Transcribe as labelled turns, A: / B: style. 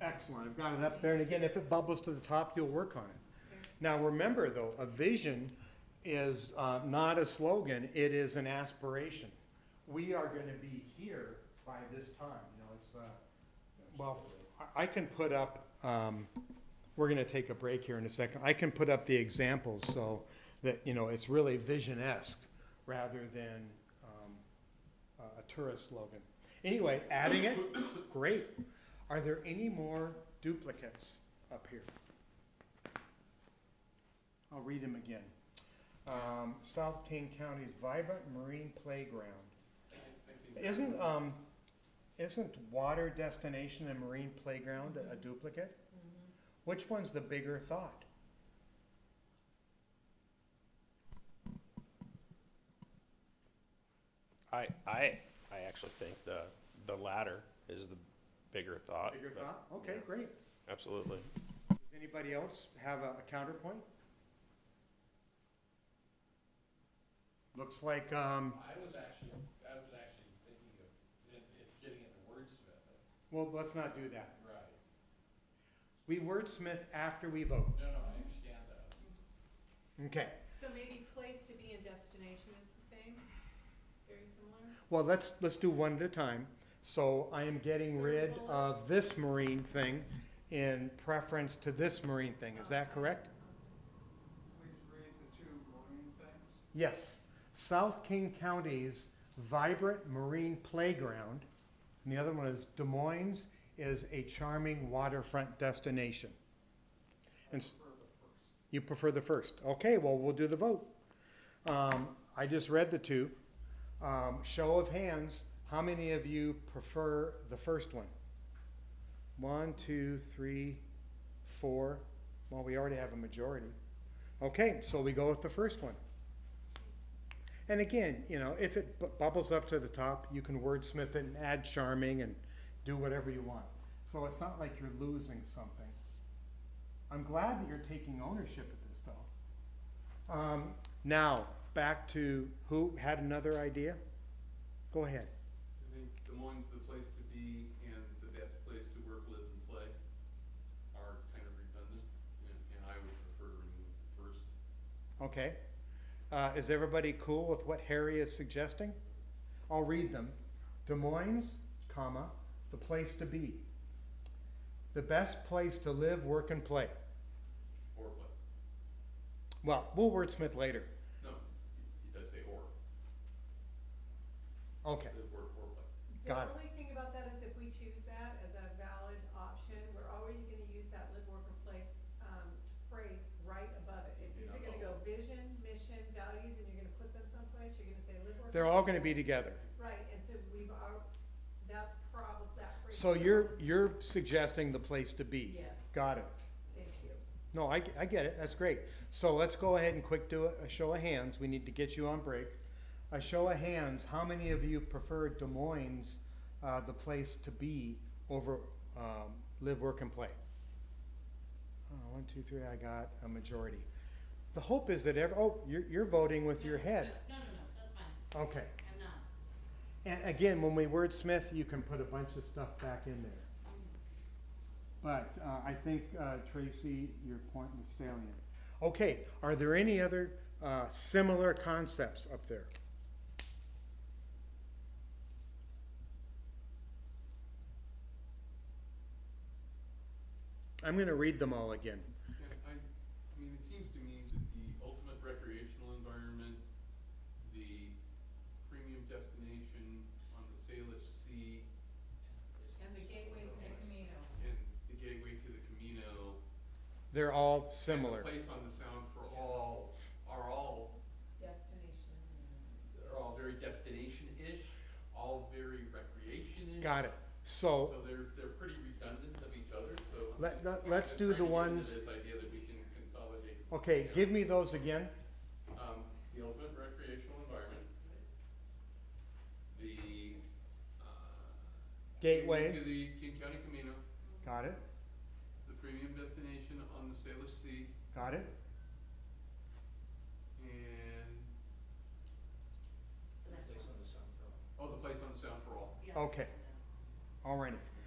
A: next one. I've got it up there, and again, if it bubbles to the top, you'll work on it. Now, remember though, a vision is uh, not a slogan, it is an aspiration. We are gonna be here by this time, you know, it's, uh, well, I, I can put up, um, we're gonna take a break here in a second. I can put up the examples so that, you know, it's really vision-esque rather than, um, a- a tourist slogan. Anyway, adding it, great. Are there any more duplicates up here? I'll read them again. Um, South King County's vibrant marine playground. Isn't, um, isn't water destination and marine playground a- a duplicate? Which one's the bigger thought?
B: I, I, I actually think the, the latter is the bigger thought.
A: Bigger
B: but-
A: thought? Okay,
B: yeah,
A: great.
B: Absolutely.
A: Does anybody else have a a counterpoint? Looks like, um,
C: I was actually, I was actually thinking of, it, it's getting into wordsmith.
A: well, let's not do that.
C: Right.
A: We wordsmith after we vote.
C: No, no, I understand that.
A: Okay.
D: So maybe place to be and destination is the same, very similar?
A: Well, let's, let's do one at a time. So I am getting rid of this marine thing in preference to this marine thing. Is that correct?
E: Please read the two marine things.
A: Yes. South King County's vibrant marine playground, and the other one is Des Moines is a charming waterfront destination. And s-
E: Prefer the first.
A: You prefer the first. Okay, well, we'll do the vote. Um, I just read the two. Um, show of hands, how many of you prefer the first one? One, two, three, four. Well, we already have a majority. Okay, so we go with the first one. And again, you know, if it bu- bubbles up to the top, you can wordsmith it and add charming and do whatever you want. So it's not like you're losing something. I'm glad that you're taking ownership of this, though. Um, now, back to who had another idea? Go ahead.
F: I think Des Moines, the place to be, and the best place to work, live, and play are kind of redundant, and, and I would prefer to remove the first.
A: Okay. Uh, is everybody cool with what Harry is suggesting? I'll read them. Des Moines, comma, the place to be. The best place to live, work, and play.
F: Or what?
A: Well, we'll wordsmith later.
F: No, he, he does say or,
A: Okay,
F: live, work, or play.
A: Got it.
D: The only thing about that is if we choose that as a valid option, we're already gonna use that live, work, or play, um, phrase right above it. If these are gonna go vision, mission, values, and you're gonna put them someplace, you're gonna say live, work.
A: they're
D: or
A: all
D: play.
A: gonna be together.
D: Right, and so we've al- that's probably, that phrase.
A: So you're, you're suggesting the place to be?
D: Yes.
A: Got it.
D: Thank you.
A: No, I, I get it, that's great. So let's go ahead and quick do a, a show of hands, we need to get you on break. A show of hands, how many of you prefer Des Moines, uh, the place to be over, um, live, work, and play? Uh, one, two, three, I got a majority. The hope is that ev- oh, you're, you're voting with your
G: No,
A: head,
G: No, no, no, that's fine,
A: okay.
G: I'm not.
A: And again, when we wordsmith, you can put a bunch of stuff back in there. But uh, I think, uh, Tracy, your point was salient. Okay, are there any other uh, similar concepts up there? I'm going to read them all again.
F: Yeah, I, I mean, it seems to me that the ultimate recreational environment, the premium destination on the Salish Sea,
D: And the gateway to the Camino.
F: and the gateway to the Camino,
A: They're all
F: and
A: similar.
F: the place on the Sound for all, are all
D: Destination.
F: they're all very destination-ish, all very recreation-ish.
A: Got it. So,
F: So they're, they're pretty redundant of each other, so. I'm
A: Let-
F: just-
A: let-
F: I'm
A: let's
F: just
A: do the
F: trying to get into
A: ones-
F: This idea that we can consolidate,
A: okay, give me those again.
F: um, the ultimate recreational environment, the, uh.
A: Gateway,
F: To the King County Camino,
A: got it,
F: the premium destination on the Salish Sea,
A: got it.
F: and,
G: So that's-
C: Place on the sound.
F: oh, the place on the Sound for All.
G: yeah,
A: Okay.
G: no.
A: Alrighty,